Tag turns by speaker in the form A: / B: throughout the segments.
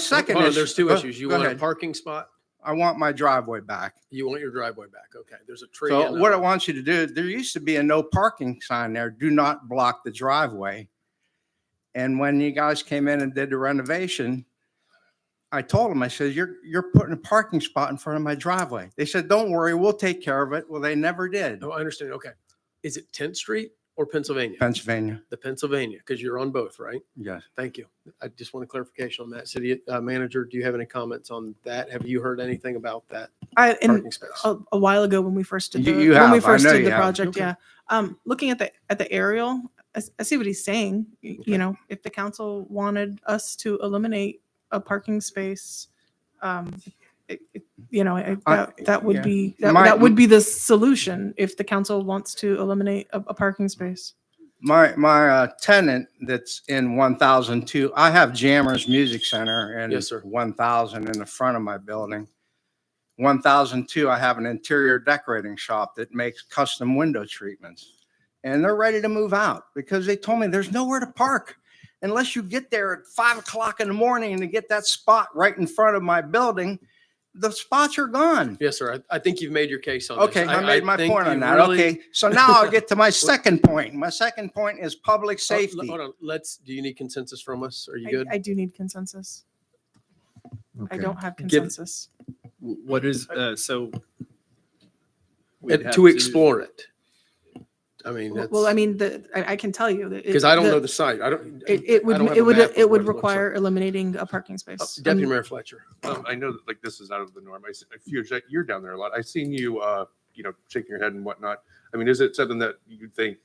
A: Second,
B: Hold on,
A: issue-
B: There's two
A: oh,
B: issues. You
A: go
B: want a
A: ahead.
B: parking spot,
A: I want my driveway back.
B: you want your driveway back. Okay, there's a tree.
A: So
B: and a-
A: what I want you to do, there used to be a no parking sign there. Do not block the driveway. And when you guys came in and did the renovation, I told them, I said, you're, you're putting a parking spot in front of my driveway. They said, don't worry, we'll take care of it. Well, they never did.
B: Oh, I understand. Okay. Is it 10th Street or Pennsylvania?
A: Pennsylvania,
B: The Pennsylvania, because you're on both, right?
A: yes.
B: Thank you. I just want a clarification on that. City uh, Manager, do you have any comments on that? Have you heard anything about that
C: I, and
B: parking space?
A: oh.
C: a, a while ago when we first did the,
A: You- you
C: when
A: have.
C: we
A: I
C: first
A: know
C: did
A: you
C: the
A: have.
C: project,
B: Okay.
C: yeah. Um, looking at the, at the aerial, I, s- I see what he's saying. Y-
B: Okay.
C: You know, if the council wanted us to eliminate a parking space, um, it, it- you know, I-
A: I-
C: that, that would
A: yeah.
C: be, that,
A: My-
C: that would be the solution if the council wants to eliminate a, a parking space.
A: My, my uh, tenant that's in 1002, I have Jammers Music Center and
B: Yes, sir.
A: 1000 in the front of my building. 1002, I have an interior decorating shop that makes custom window treatments. And they're ready to move out because they told me there's nowhere to park unless you get there at five o'clock in the morning and to get that spot right in front of my building, the spots are gone.
B: Yes, sir. I, I think you've made your case on this.
A: Okay, I made my
B: think
A: point
B: you
A: on that.
B: really- Oh,
A: Okay, so now I'll get to my second point. My second point is public
B: Oh, l-
A: safety.
B: Hold on, let's, do you need consensus from us? Are you
C: I-
B: good?
C: I do need consensus. I
D: Okay.
C: don't have
B: Give-
C: consensus.
D: W- What is, uh, so? we'd
B: And
D: have
B: To explore it. I mean,
C: Well,
B: that's,
C: well, I mean, the, I, I can tell you. that it-
B: because I don't
C: the-
B: know the site. I don't.
C: It, it
B: I
C: would,
B: don't have
C: it
B: a
C: would,
B: map of
C: it
B: what
C: would
B: looks like.
C: require eliminating a parking
B: Uh,
C: space.
B: Deputy
C: Um,
B: Mayor Fletcher.
E: Um, I know that like this is out of the norm. I, s- I feel that you're down there a lot. I've seen you, uh, you know, shaking your head and whatnot. I mean, is it something that you think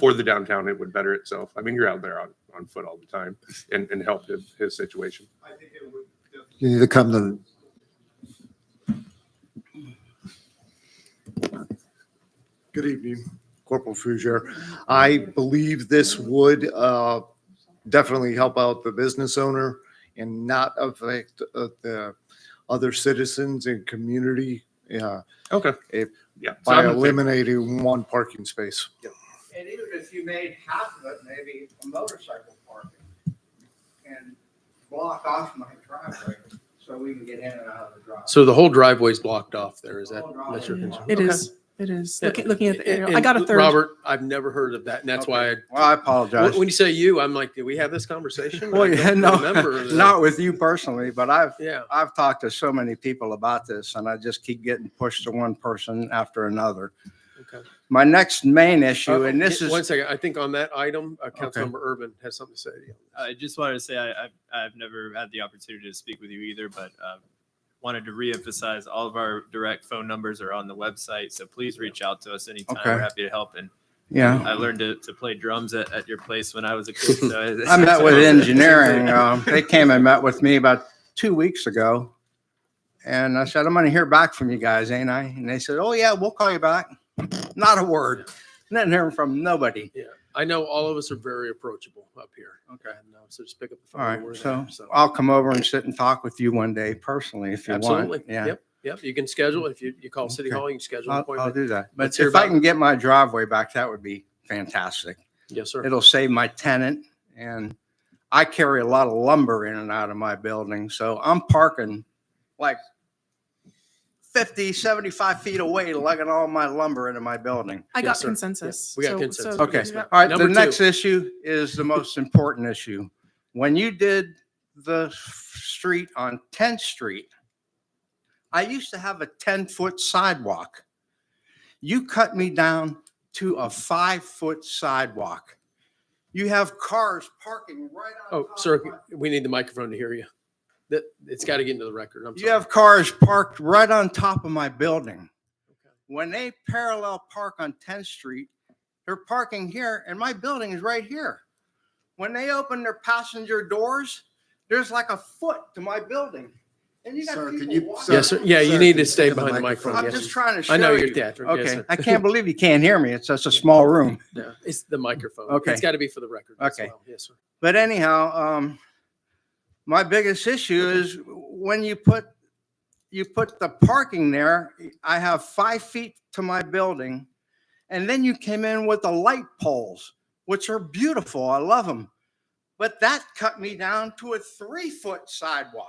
E: for the downtown it would better itself? I mean, you're out there on, on foot all the time and, and help his, his situation.
F: You need to come to,
G: Good evening, Corporal Fuzier. I believe this would uh, definitely help out the business owner and not affect uh, the other citizens and community uh,
E: Okay.
G: If-
E: yeah. so
G: by
E: I'm in favor.
G: eliminating one parking space.
A: And even if you made half of it, maybe a motorcycle parking and block off my driveway so we can get in and out of the driveway.
B: So the whole driveway's blocked off there. Is that, that's your
A: Yeah.
B: concern?
C: It
B: Okay.
C: is, it is.
B: Yeah,
C: Looking, looking at the
B: and-
C: aerial, I
B: and
C: got a third.
B: Robert, I've never heard of that. And that's why, I-
A: Well, I
B: when
A: apologize.
B: when you say you, I'm like, did we have this conversation?
A: Well,
B: I
A: yeah,
B: don't
A: no,
B: remember that.
A: not with you personally, but I've,
B: Yeah,
A: I've talked to so many people about this and I just keep getting pushed to one person after another.
B: okay.
A: My next main issue, and this
B: Uh,
A: is.
B: One second, I think on that item, uh,
A: Okay.
B: Councilmember Urban has something to say. to you.
D: I just wanted to say, I, I've, I've never had the opportunity to speak with you either, but, uh, wanted to reemphasize, all of our direct phone numbers are on the website, so please reach out to us anytime.
A: Okay. Oh.
D: We're happy to help. And
A: Yeah.
D: I learned to, to play drums at, at your place when I was a kid, so.
A: I met with engineering. Um, they came and met with me about two weeks ago. And I said, I'm going to hear back from you guys, ain't I? And they said, Oh, yeah, we'll call you back. Not a word. Not hearing from nobody.
B: I know all of us are very approachable up here.
A: Okay.
B: And, uh, So just pick up the phone.
A: All
B: when
A: right,
B: we're there,
A: so I'll come over and sit and talk with you one day personally if you
B: Absolutely.
A: want. Yeah.
B: Yep, yep. You can schedule, if you, you call City
A: Okay.
B: Hall, you can schedule an
A: I'll, I'll
B: appointment.
A: do that. But
B: Let's hear
A: if I
B: about-
A: can get my driveway back, that would be fantastic.
B: Yes, sir.
A: It'll save my tenant and I carry a lot of lumber in and out of my building, so I'm parking like 50, 75 feet away, lugging all my lumber into my building.
C: I
B: Yes,
C: got
B: sir.
C: consensus.
B: Yeah, we got
C: So-
B: consensus.
C: so
A: Okay,
C: we got-
A: all right, the
B: Number
A: next
B: two.
A: issue is the most important issue. When you did the street on 10th Street, I used to have a 10-foot sidewalk. You cut me down to a five-foot sidewalk. You have cars parking right on
B: Oh,
A: top.
B: sir,
A: of my-
B: we need the microphone to hear you. That, it's got to get into the record. I'm
A: You
B: sorry.
A: have cars parked right on top of my building. When they parallel park on 10th Street, they're parking here and my building is right here. When they open their passenger doors, there's like a foot to my building. And you got
F: Sir, can
A: people
F: you-
A: walking.
B: Yes, sir. Yeah, you
F: Sir,
B: need
F: can
B: to
F: you
B: stay
F: pick up the
B: behind the
F: microphone?
B: microphone.
A: I'm
B: Yes,
A: just
B: sir.
A: trying to show
B: I
A: you.
B: know you're theatrical. yes,
A: Okay,
B: sir.
A: I can't believe you can't hear me. It's such a small room.
B: No, It's the microphone.
A: Okay.
B: It's got to be for the record. as
A: Okay.
B: well. Yes, sir.
A: But anyhow, um, my biggest issue is when you put, you put the parking there, I have five feet to my building. And then you came in with the light poles, which are beautiful. I love them. But that cut me down to a three foot sidewalk.